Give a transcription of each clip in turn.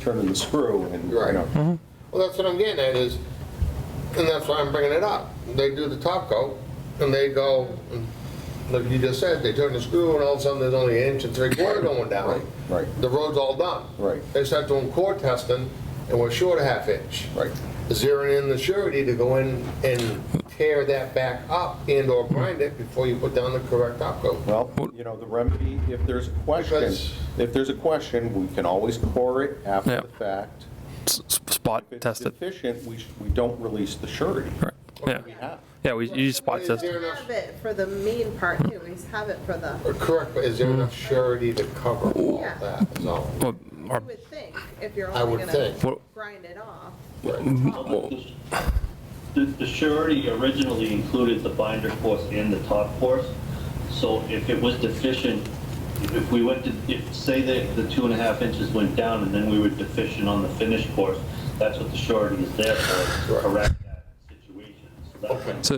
trimming the screw and, you Right. Mm-hmm. know. Well, that's what I'm getting at is, and that's why I'm bringing it up. They do the top coat and they go, like you just said, they turn the screw and all of a sudden there's only an inch and three quarter going down. Right, right. The road's all done. Right. They start doing core testing and we're short a half inch. Right. Zeroing in the surety to go in and tear that back up and or grind it before you put down the correct top coat. Well, you know, the remedy, if there's a question, Because- if there's a question, we can always core it after Yeah. the fact. S- s- Spot If it's test it. deficient, we, sh- we don't release the surety. Right. Yeah, We have. yeah, we, you spot Is test there it. enough- have it for the main part too, we have it for the, Correct, but is there enough surety to cover all Yeah. that? So, Well, our- you would think, if you're I only would gonna think. grind it off. The, the surety originally included the binder course and the top course, so if it was deficient, if we went to, if, say that the two and a half inches went down and then we were deficient on the finished course, that's what the surety is there for, to correct that situation. So that's what's So,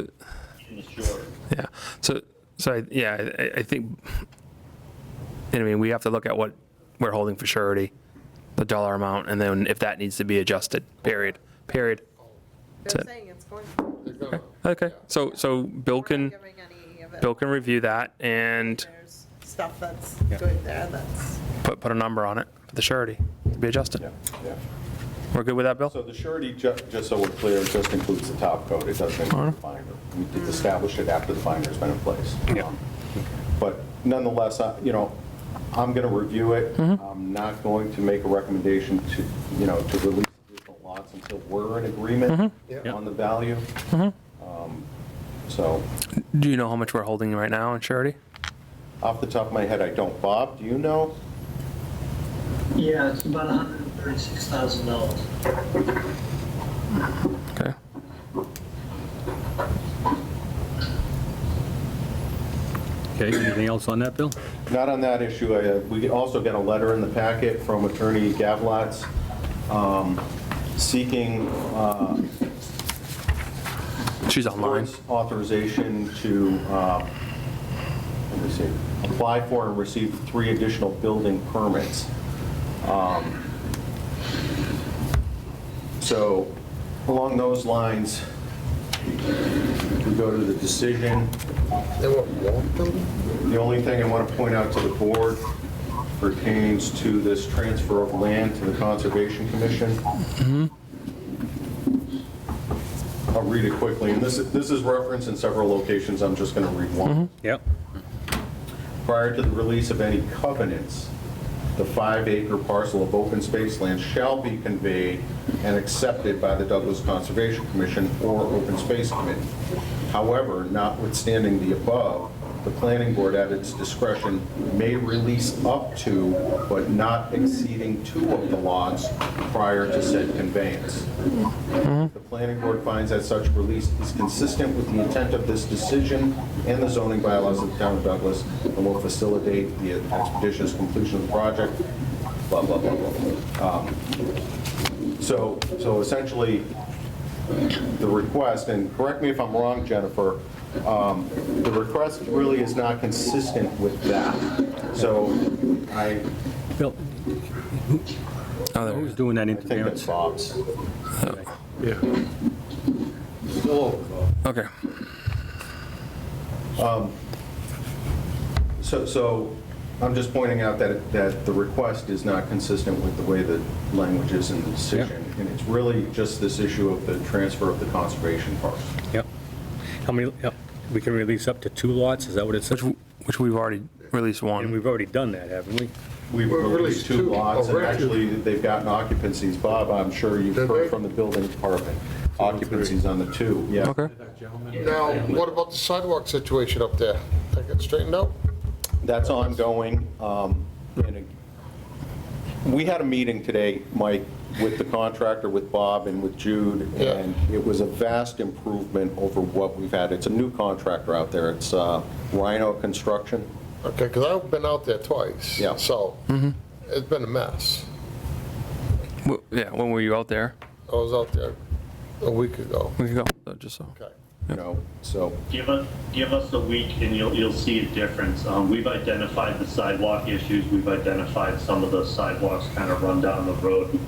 in the surety. yeah, so, so, I- yeah, I, I think, I mean, we have to look at what we're holding for surety, the dollar amount, and then if that needs to be adjusted, period, period. They're it. saying it's going, they're gonna- Okay, so, so Bill we're not can, giving any of it. Bill can review that and There's stuff that's good there that's. put, put a number on it for the surety to be adjusted. Yeah, yeah. We're good with that, So Bill? the surety, ju- just so we're clear, just includes the top coat, it doesn't include the binder. We did establish it after the binder's been in place. Um, But nonetheless, I- you know, I'm going to review it. I'm not going to make a recommendation to, you know, to release additional lots until we're in agreement Yeah. on the value. Um, So, Do you know how much we're holding right now in surety? off the top of my head, I don't. Bob, do you know? Yeah, it's about hundred and thirty-six thousand dollars. Okay. Okay, anything else on that, Bill? Not on that issue. I, uh, We also got a letter in the packet from Attorney Gavlots um, seeking uh, She's online. board's authorization to, uh, let me see, apply for and receive three additional building permits. Um, So along those lines, we go to the decision. They want one building? The only thing I want to point out to the board pertains to this transfer of land to the Conservation Commission. I'll read it quickly, and this, this is referenced in several locations, I'm just going to read one Yep. prior to the release of any covenants, the five-acre parcel of open space land shall be conveyed and accepted by the Douglas Conservation Commission or Open Space Committee. However, notwithstanding the above, the planning board at its discretion may release up to, but not exceeding two of the lots prior to said conveyance. The planning board finds that such release is consistent with the intent of this decision and the zoning bylaws of the town of Douglas and will facilitate the expeditious completion of the project, blah, blah, blah, blah. blah. Um, So, so essentially, the request, and correct me if I'm wrong, Jennifer, um, the request really is not consistent with that. So I Bill, Oh, there it who's is. doing that I think that's interference? Bob's. Yeah. Still over, Bob. Okay. So, so I'm just pointing out that, that the request is not consistent with the way the language is in the decision. And it's really just this issue of the transfer of the conservation parcel. Yep. How many, yep, we can release up to two lots, is that what it Which, says? w- which we've already released And one. we've already done that, haven't we? We've Well, released released two two lots, and already. actually, they've gotten occupancies. Bob, I'm sure you've Did heard they? from the building department, occupancies on the two, yeah. Okay. Now, what about the sidewalk situation up there? That got straightened out? That's ongoing. um, and it- We had a meeting today, Mike, with the contractor, with Bob and with Jude, Yeah. and it was a vast improvement over what we've had. It's a new contractor out there. It's uh, Rhino Construction. Okay, because I've been out there twice. Yeah. So, it's been a mess. W- Yeah, when were you out there? I was out there a week ago. We can go, uh, just so. Okay. you know, so, Give us, give us a week and you'll, you'll see a difference. Um, we've identified the sidewalk issues, we've identified some of the sidewalks kind of run down the road.